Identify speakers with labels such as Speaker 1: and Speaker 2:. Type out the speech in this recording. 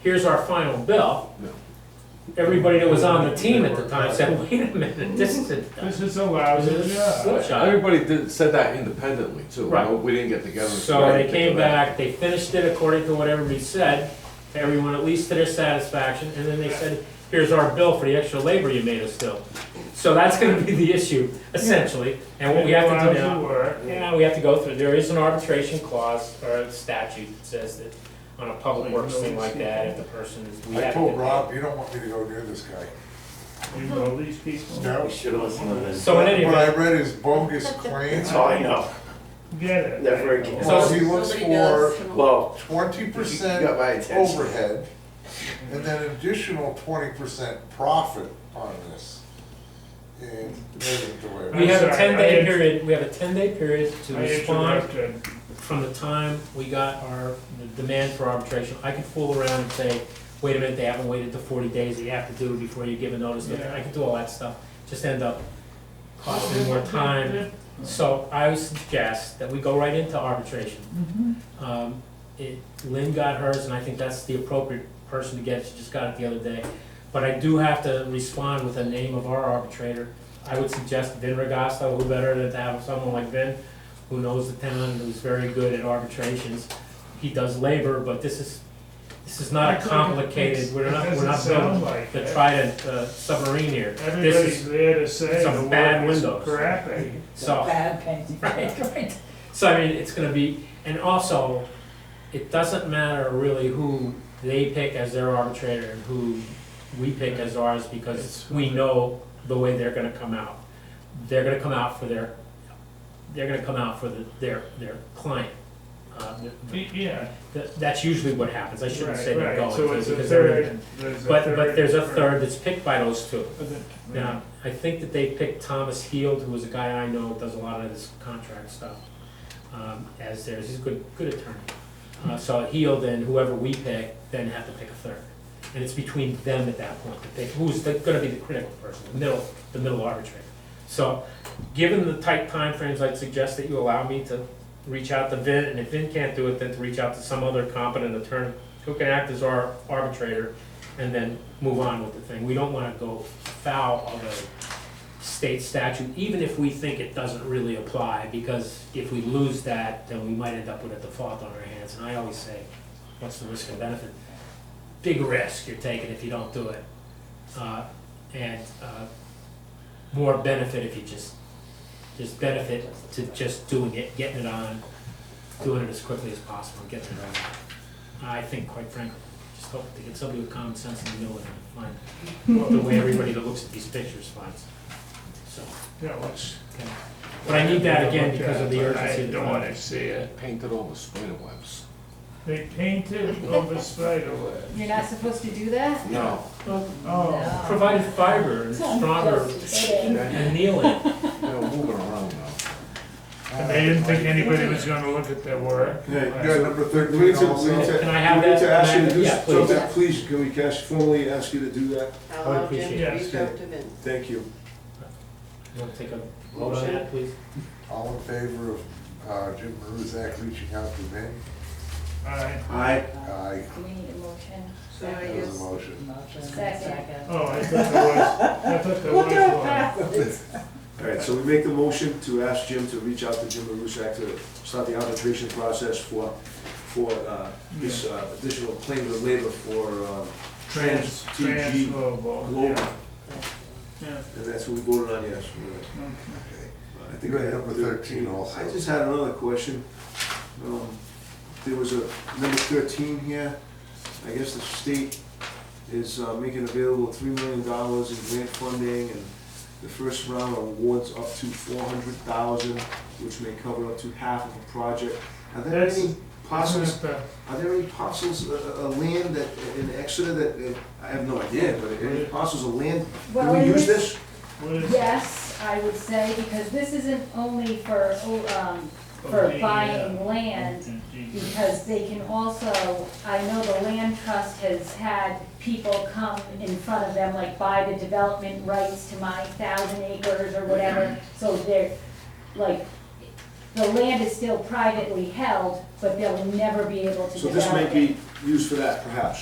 Speaker 1: here's our final bill.
Speaker 2: No.
Speaker 1: Everybody that was on the team at the time said, wait a minute, this is a,
Speaker 3: This is
Speaker 1: this
Speaker 3: a lousy
Speaker 1: is a
Speaker 2: Mm-hmm.
Speaker 3: job.
Speaker 1: slip shot.
Speaker 2: Everybody did, said that independently too.
Speaker 1: Right.
Speaker 2: No, We didn't get together. and
Speaker 1: So
Speaker 2: said,
Speaker 1: they
Speaker 2: "Hey,
Speaker 1: came
Speaker 2: get that."
Speaker 1: back, they finished it according to what everybody said, to everyone, at least to their satisfaction, and then they said, here's our bill for the extra labor you made us do. So that's gonna be the issue, essentially, and what we have to do
Speaker 3: Lousy
Speaker 1: now.
Speaker 3: work.
Speaker 1: Yeah, we have to go through, there is an arbitration clause or a statute that says that on a public works thing like that, if the person is, we
Speaker 4: I
Speaker 1: have to.
Speaker 4: told Rob, you don't want me to go near this guy.
Speaker 3: You know these people.
Speaker 4: No.
Speaker 5: Should have listened to this.
Speaker 1: So in any
Speaker 4: When I
Speaker 1: event,
Speaker 4: read his bogus claims,
Speaker 5: That's all I know.
Speaker 3: Get it.
Speaker 5: Never again.
Speaker 4: well, he looks
Speaker 6: Nobody
Speaker 4: for
Speaker 6: does.
Speaker 5: Well,
Speaker 4: twenty percent
Speaker 5: You got my attention.
Speaker 4: overhead and then an additional twenty percent profit on this. And that isn't the way it
Speaker 1: we have a
Speaker 3: I'm sorry,
Speaker 1: ten day
Speaker 3: I-
Speaker 1: period, we have a ten day period to
Speaker 3: I
Speaker 1: respond
Speaker 3: interrupted.
Speaker 1: from the time we got our the demand for arbitration. I can fool around and say, wait a minute, they haven't waited the forty days that you have to do before you give a notice.
Speaker 3: Yeah.
Speaker 1: I can do all that stuff, just end up costing more time. So I would suggest that we go right into arbitration.
Speaker 3: Mm-hmm.
Speaker 1: Um, it, Lynn got hers, and I think that's the appropriate person to get, she just got it the other day. But I do have to respond with the name of our arbitrator. I would suggest Vin Regosta, who better than to have someone like Vin, who knows the town, and who's very good at arbitrations. He does labor, but this is, this is not a complicated, we're not, we're not building the trident uh, submarine here. This is
Speaker 3: Everybody's there to say
Speaker 1: some
Speaker 3: the
Speaker 1: bad
Speaker 3: work is
Speaker 1: windows.
Speaker 3: crappy.
Speaker 1: So.
Speaker 6: Bad painting.
Speaker 1: Right, right. So I mean, it's gonna be, and also, it doesn't matter really who they pick as their arbitrator and who we pick as ours, because we know the way they're gonna come out. They're gonna come out for their, they're gonna come out for the, their, their client. Uh, th- th-
Speaker 3: Yeah,
Speaker 1: th- That's usually what happens, I shouldn't
Speaker 3: right,
Speaker 1: say they're
Speaker 3: right,
Speaker 1: going
Speaker 3: so
Speaker 1: to,
Speaker 3: it's a
Speaker 1: because they're-
Speaker 3: third. there's a
Speaker 1: but, but there's a
Speaker 3: for-
Speaker 1: third that's picked by those two.
Speaker 3: for the-
Speaker 1: Now, I think that they picked Thomas Heald, who is a guy I know, does a lot of this contract stuff, um, as theirs, he's a good, good attorney. Uh, so Heald and whoever we pick, then have to pick a third. And it's between them at that point to pick, who's the- gonna be the critical person, the middle, the middle arbitrator. So, given the tight timeframes, I'd suggest that you allow me to reach out to Vin, and if Vin can't do it, then to reach out to some other competent attorney who can act as our arbitrator, and then move on with the thing. We don't wanna go foul of a state statute, even if we think it doesn't really apply, because if we lose that, then we might end up with a default on our hands, and I always say, what's the risk and benefit? Big risk you're taking if you don't do it, uh, and, uh, more benefit if you just, there's benefit to just doing it, getting it on, doing it as quickly as possible, getting it on. I think, quite frankly, just hope to get somebody with common sense in the middle of it, find the way everybody that looks at these pictures finds. So,
Speaker 3: Yeah, which.
Speaker 1: okay. But I need that again because of the
Speaker 3: Look at it,
Speaker 1: urgency.
Speaker 3: I
Speaker 1: of the
Speaker 3: don't wanna
Speaker 1: project.
Speaker 3: see it.
Speaker 2: Painted all the spider webs.
Speaker 3: They painted over spider web.
Speaker 7: You're not supposed to do that?
Speaker 2: No.
Speaker 3: Oh,
Speaker 1: Provided fiber and stronger annealing.
Speaker 2: They're moving around now.
Speaker 3: and they didn't think anybody was gonna look at their work.
Speaker 8: Yeah,
Speaker 3: Right.
Speaker 8: you got number thirteen
Speaker 4: We need
Speaker 8: also.
Speaker 1: Can I have
Speaker 8: We need
Speaker 1: that?
Speaker 8: to ask you to do
Speaker 1: Yeah, please.
Speaker 8: something, please, can we cash formally ask you to do that?
Speaker 6: I'll allow Jim
Speaker 1: appreciate
Speaker 6: to
Speaker 3: it.
Speaker 6: reach out to Vin.
Speaker 8: Thank you.
Speaker 1: You wanna take a vote on that, please?
Speaker 4: All in favor of uh, Jim Maruzak reaching out to Vin?
Speaker 3: Alright,
Speaker 8: Aye.
Speaker 4: Aye,
Speaker 7: Do we need a motion?
Speaker 6: So I
Speaker 4: that was a
Speaker 6: guess,
Speaker 4: motion.
Speaker 7: Second.
Speaker 3: oh, I thought there was, I thought there was one.
Speaker 8: All right, so we make the motion to ask Jim to reach out to Jim Marusak to start the arbitration process for, for uh, this uh, additional claim of labor for um, Trans, TG,
Speaker 3: Transferable,
Speaker 8: Global.
Speaker 3: oh, yeah, yeah.
Speaker 8: And that's what we voted on yesterday. I think I
Speaker 4: You had
Speaker 8: had
Speaker 4: number 13 also.
Speaker 8: I just had another question. Um, There was a number thirteen here. I guess the state is uh, making available three million dollars in grant funding and the first round awards up to four hundred thousand, which may cover up to half of a project. Are there
Speaker 3: That's-
Speaker 8: any parcels
Speaker 3: Isn't it
Speaker 8: are there any parcels of of land that, in Exeter that, uh, I have no idea, but are there any parcels of land, do
Speaker 7: Well,
Speaker 8: we
Speaker 7: it
Speaker 8: use
Speaker 7: is-
Speaker 8: this?
Speaker 3: the- what is it?
Speaker 7: Yes, I would say, because this isn't only for, um, for
Speaker 3: Okay,
Speaker 7: buying
Speaker 3: yeah.
Speaker 7: land, because they can also, I know the land trust has had people come in front of them, like buy the development rights to my thousand acres or whatever, so they're, like, the land is still privately held, but they'll never be able to
Speaker 8: So
Speaker 7: develop it.
Speaker 8: this might be used for that perhaps?